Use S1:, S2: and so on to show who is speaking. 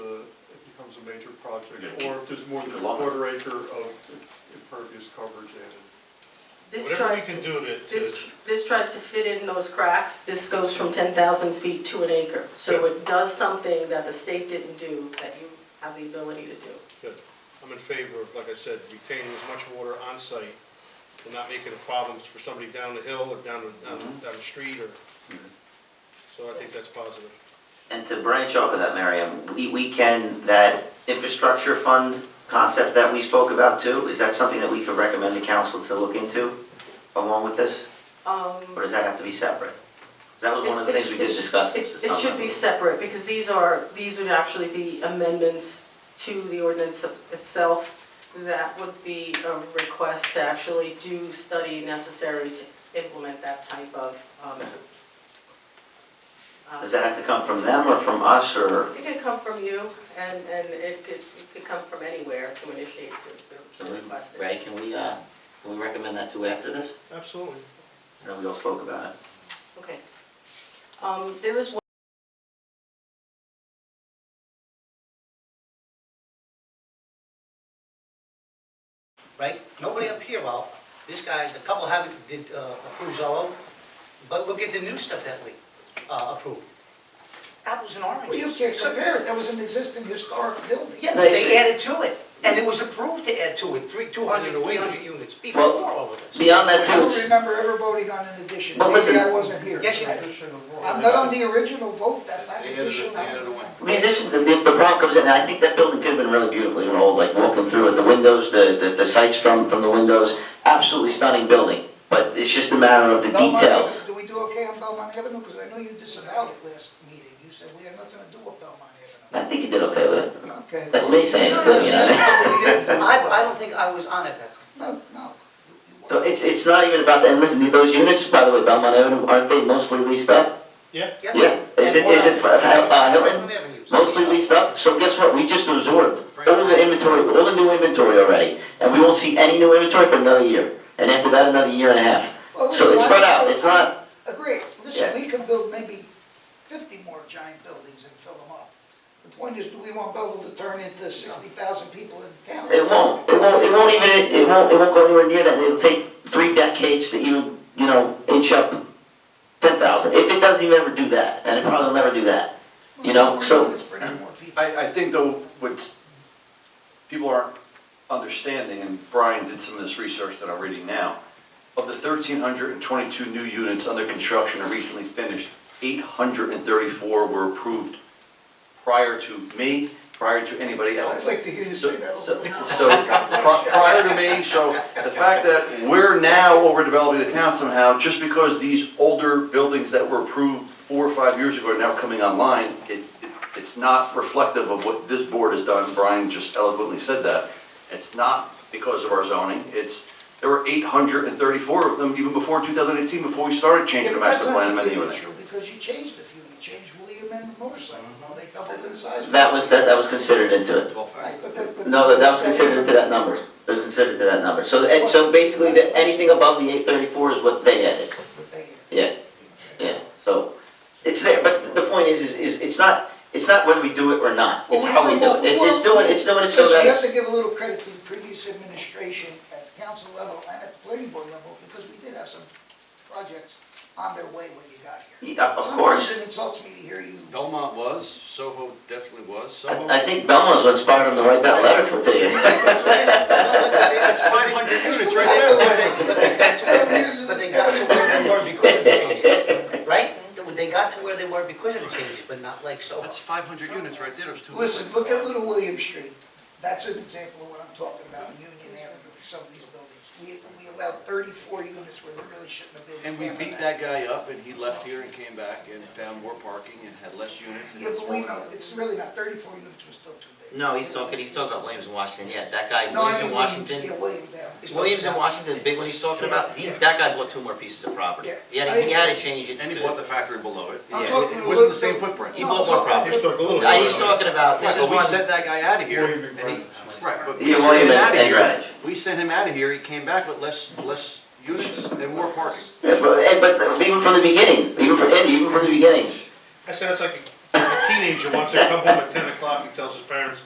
S1: becomes a major project,
S2: Yeah.
S1: or if there's more than a
S2: Lot.
S1: quarter acre of impervious coverage added.
S3: This
S4: Whatever we
S3: tries
S4: can
S3: to,
S4: do to, to,
S3: this, this tries to fit in those cracks. This goes from 10,000 feet to an acre. So it does something that the state didn't do that you have the ability to do.
S4: good. I'm in favor of, like I said, retaining as much water on site and not making it a problem for somebody down the hill or down, the- down, the- down the street or, so I think that's positive.
S5: And to branch off of that, Miriam, we, we can, that infrastructure fund concept that we spoke about too, is that something that we could recommend the council to look into along with this? Or
S3: Um,
S5: does that have to be separate? 'Cause That was one of the
S3: it- it
S5: things we did
S3: should-
S5: discuss at
S3: It
S5: some
S3: it should be
S5: level.
S3: separate because these are, these would actually be amendments to the ordinance itself. That would be a request to actually do study necessary to implement that type of. um, uh,
S5: Does that have to come from them or from us or?
S3: It could come from you, and, and it could, it could come from anywhere to initiate to,
S5: Mm-hmm.
S3: to request it.
S5: Ray, can we, uh, can we recommend that too after this?
S4: Absolutely.
S5: I know we all spoke about it.
S3: Okay. Um, there is one.
S6: right? Nobody up here, well, this guy, the couple haven't, did, uh, approve Zolo, but look at the new stuff that we, uh, approved. Apples and
S7: Well,
S6: oranges.
S7: you can't
S6: So-
S7: compare it, that was an existing historic building.
S6: Yeah,
S5: No,
S6: but
S5: it's-
S6: they added to it, and it was approved to add to it, three, two hundred, three hundred units before
S5: Well,
S6: all of this.
S5: Beyond that
S7: I
S5: too,
S7: don't
S5: it's-
S7: remember ever voting on an addition,
S5: Well,
S7: maybe
S5: listen.
S7: I wasn't here.
S6: Yes, you did.
S7: I'm not on the original vote, that, that addition.
S5: I mean, this is, the, the barn comes in, and I think that building could have been really beautiful, you know, like walking through it, the windows, the, the, the sights from, from the windows, absolutely stunning building, but it's just a matter of the
S7: Belmont
S5: details.
S7: Avenue, Do we do okay on Belmont Avenue? Because I know you disavowed it last meeting, you said we had nothing to do with Belmont Avenue.
S5: I think you did okay with it.
S7: Okay.
S5: That's me saying it,
S7: No, no,
S5: you know.
S7: that's what we didn't do.
S6: I, I don't think I was on it that time.
S7: No, no. you- you
S5: So
S7: weren't.
S5: it's, it's not even about that, and listen, those units, by the way, Belmont Avenue, aren't they mostly leased up?
S4: Yeah,
S5: Yeah. Is it- is it for- uh, Hilton?
S6: Franklin Avenue.
S5: Mostly leased up, so guess what, we just absorbed all the inventory, all the new inventory already, and we won't see any new inventory for another year, and after that, another year and a half.
S7: Well,
S5: So it's
S7: listen,
S5: spread
S7: I-
S5: out, it's not,
S7: Agreed,
S5: Yeah.
S7: listen, we can build maybe fifty more giant buildings and fill them up. The point is, do we want Belleville to turn into sixty thousand people in town?
S5: It won't, it won't, it won't even, it won't, it won't go anywhere near that, it'll take three decades to even, you know, inch up ten thousand, if it doesn't even ever do that, and it probably will never do that, you know, so,
S7: It's bringing more people.
S2: I, I think though, what people aren't understanding, and Brian did some of this research that I'm reading now, of the 1,322 new units under construction and recently finished, 834 were approved prior to me, prior to
S7: I'd
S2: anybody else.
S7: like to hear you
S2: So,
S7: say that.
S2: so-
S7: over and over.
S2: so, pri- prior to me, so the fact that we're now overdeveloping the town somehow, just because these older buildings that were approved four or five years ago are now coming online, it, it- it's not reflective of what this board has done, Brian just eloquently said that. It's not because of our zoning, it's, there were eight hundred and thirty-four of them even before two thousand eighteen, before we started changing
S7: Yeah,
S2: the
S7: but that's
S2: master
S7: not
S2: plan amending
S7: completely
S2: it.
S7: true, Because you changed a few, you changed William and the motorcycle, no, they doubled in size.
S5: that was, that, that was considered into it.
S7: Right, but that- but-
S5: No, that, that was considered into that number, that was considered to that number, so, and, so basically, the, anything above the eight thirty-four is what they added. Yeah, yeah, so, it's there, but the point is, is, is, it's not, it's not whether we do it or not, it's how we do it, it's, it's doing, it's doing it so
S7: Listen,
S5: that.
S7: you have to give a little credit to the previous administration at the council level and at the planning board level, because we did have some projects on their way when you got here.
S5: Yeah, of course.
S7: Sometimes it insults me to hear you,
S8: Belmont was, Soho definitely was, Soho.
S5: I, I think Belmont's what inspired him to write that letter for Diaz.
S6: That's what I said. That's what I said.
S4: that's 500 units right there.
S6: But they got to where- but they got to where they were because of the changes, right? They got to where they were because of the changes, but not like so.
S8: That's five hundred units right there, there's two.
S7: listen, look at Little William Street, that's an example of what I'm talking about, in Union Avenue, some of these buildings. We, we allowed thirty-four units where there really shouldn't have been.
S8: And we
S7: Yeah,
S8: beat that guy up and he left here and came back and found more parking and had less units. and
S7: Yeah,
S8: it's
S7: but we
S8: all-
S7: know, it's really not, thirty-four units was still too big.
S5: No, he's talking, he's talking about Williams and Washington, yeah, that guy,
S7: No,
S5: Williams
S7: I mean,
S5: and
S7: Williams,
S5: Washington,
S7: yeah, Williams, yeah.
S5: is Williams and Washington, the big one he's talking about, he,
S7: Yeah.
S5: that guy bought two more pieces of property.
S7: Yeah.
S5: He had, to- he had to change it
S8: And he bought the
S5: to,
S8: factory below it.
S7: I'm
S5: Yeah,
S7: talking
S8: It wasn't the
S7: about-
S8: same footprint.
S5: he bought one property.
S4: Just took a little.
S5: Uh, he's talking about, this
S8: Right,
S5: is
S8: but we
S5: one,
S8: sent that guy out of here
S1: William
S8: and he, right, but
S5: Yeah,
S8: we sent
S5: William and-
S8: him out of
S5: and
S8: here.
S5: Greenwich.
S8: We sent him out of here, he came back with less, less units and more parking.
S5: yeah, but, and- but even from the beginning, even from, Andy, even from the beginning,
S4: That sounds like a- a teenager wants to come home at ten o'clock and tells his parents,